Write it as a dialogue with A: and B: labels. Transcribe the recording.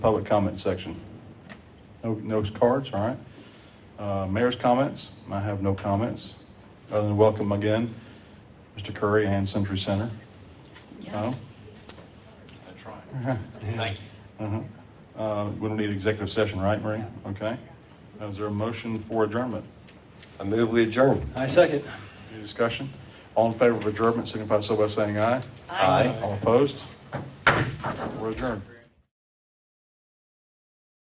A: public comment section. No, no cards, all right. Uh, Mayor's comments, I have no comments, other than welcome again, Mr. Curry and Century Center.
B: Yes.
A: No?
C: That's right. Thank you.
A: Uh-huh. Uh, We don't need executive session, right, Marie? Okay. Is there a motion for adjournment?
D: I move we adjourn.
C: I second.
A: Any discussion? All in favor of adjournment, signify so by saying aye.
D: Aye.
A: All opposed? We're adjourned.